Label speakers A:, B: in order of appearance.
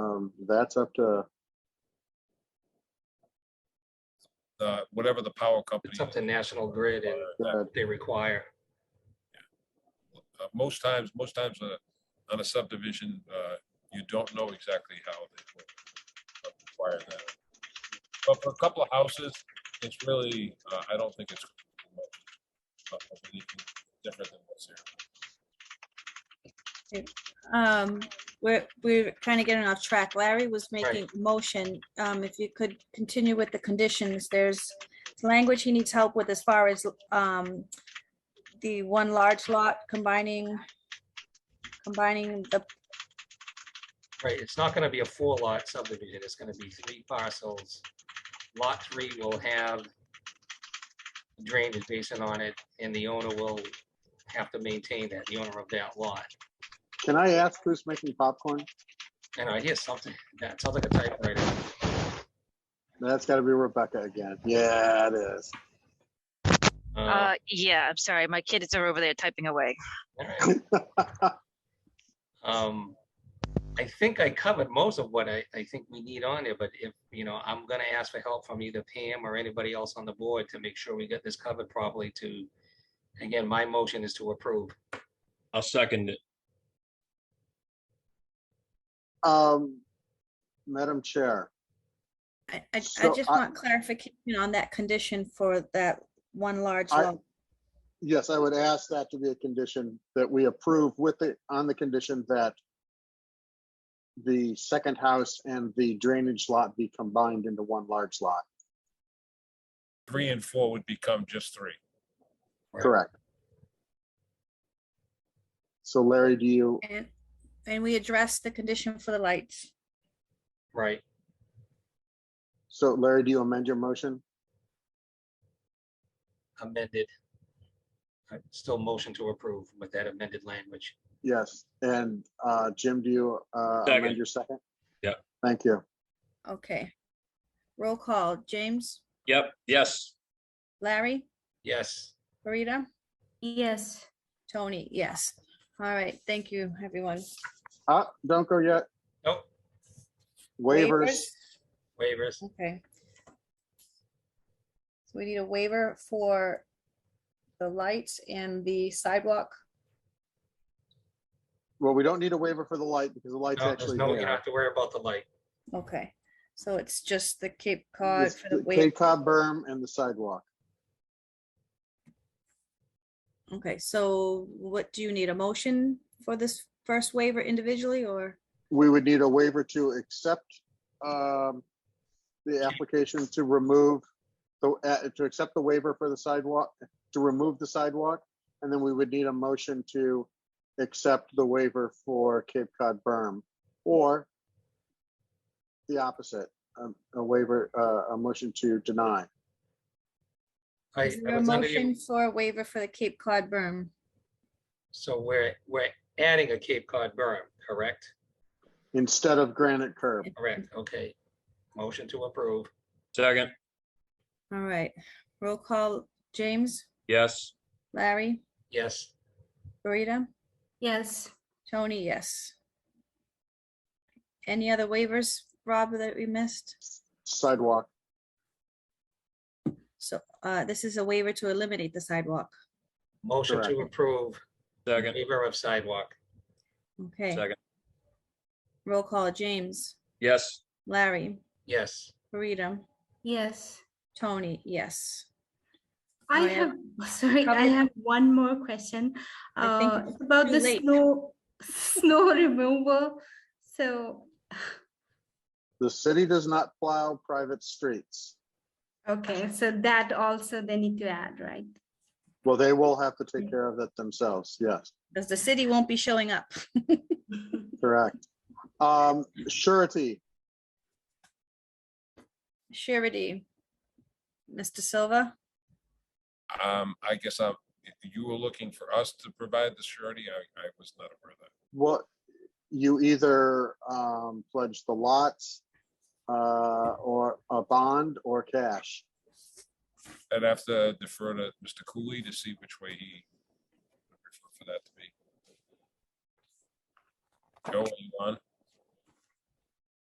A: Um, that's up to,
B: the, whatever the power company.
C: It's up to National Grid and
B: Uh,
A: uh,
C: what they require.
B: uh, Most times, most times on a, on a subdivision, uh, you don't know exactly how they will require that. But for a couple of houses, it's really, uh, I don't think it's uh, anything different than what's here.
D: Um, we're, we're kind of getting off track. Larry was making a motion. Um, if you could continue with the conditions, there's language he needs help with as far as, um, the one large lot combining, combining the,
C: Right, it's not gonna be a four lot subdivision, it's gonna be three parcels. Lot three will have drainage basin on it, and the owner will have to maintain that, the owner of that lot.
A: can I ask who's making popcorn?
C: And I hear something, that sounds like a typewriter.
A: That's gotta be Rebecca again. Yeah, it is.
C: Uh,
E: Uh, yeah, I'm sorry. My kids are over there typing away.
C: all right. Um, I think I covered most of what I, I think we need on there, but if, you know, I'm gonna ask for help from either Pam or anybody else on the board to make sure we get this covered properly to, again, my motion is to approve.
F: I'll second it.
A: Um, Madam Chair,
D: I, I, I
A: So
D: just
A: I-
D: want clarification on that condition for that one large
A: I-
D: lot.
A: yes, I would ask that to be a condition that we approve with the, on the condition that the second house and the drainage lot be combined into one large lot.
B: Three and four would become just three.
A: Correct. So Larry, do you,
D: And, and we addressed the condition for the lights.
C: Right,
A: so Larry, do you amend your motion?
C: amended. I Still motion to approve with that amended language.
A: Yes. And uh, Jim, do you uh, amend
F: Second.
A: your second?
F: Yep.
A: Thank you.
D: Okay. Roll call. James,
F: Yep, yes.
D: Larry,
C: Yes,
D: Rita,
G: Yes.
D: Tony, yes. All right, thank you, everyone.
A: Uh, don't go yet.
C: Nope.
A: Waivers,
D: Waivers?
C: waivers,
D: Okay. So we need a waiver for the lights and the sidewalk.
A: well, we don't need a waiver for the light because the light's
C: no, there's
A: actually
C: no, you don't
A: there.
C: have to worry about the light.
D: Okay, so it's just the Cape Cod
A: It's
D: for the
A: the Cape
D: waiver.
A: Cod berm and the sidewalk.
D: Okay, so what do you need? A motion for this first waiver individually or?
A: We would need a waiver to accept um, the application to remove, the uh, to accept the waiver for the sidewalk, to remove the sidewalk. And then we would need a motion to accept the waiver for Cape Cod berm or the opposite, um, a waiver, uh, a motion to deny.
C: I-
D: Is
C: I
D: there a
C: was under the-
D: motion for a waiver for the Cape Cod berm?
C: So we're, we're adding a Cape Cod berm, correct?
A: instead of granite curb.
C: Correct, okay. Motion to approve,
F: Second,
D: All right, roll call. James,
F: yes.
D: Larry,
C: yes,
D: Rita,
G: Yes.
D: Tony, yes. Any other waivers, Rob, that we missed?
A: Sidewalk,
D: So uh, this is a waiver to eliminate the sidewalk.
C: motion to approve,
F: Second,
C: waiver of sidewalk,
D: Okay,
F: second,
D: roll call, James,
F: yes.
D: Larry,
C: yes.
D: Rita,
G: Yes.
D: Tony, yes.
G: I
D: I
G: have, sorry, I
D: Probably-
G: have one more question.
D: I think
G: Uh,
D: it's
G: it's about
D: too
G: the
D: late.
G: snow, snow removal. So,
A: the city does not plow private streets.
G: okay, so that also they need to add, right?
A: Well, they will have to take care of that themselves, yes,
D: Because the city won't be showing up.
A: correct. Um, surety,
D: Surety. Mr. Silva,
B: Um, I guess I'm, you were looking for us to provide the surety. I, I was not aware of that.
A: what, you either, um, pledge the lots, uh, or a bond or cash.
B: I'd have to defer to Mr. Cooley to see which way he would prefer for that to be. Joe, are you on?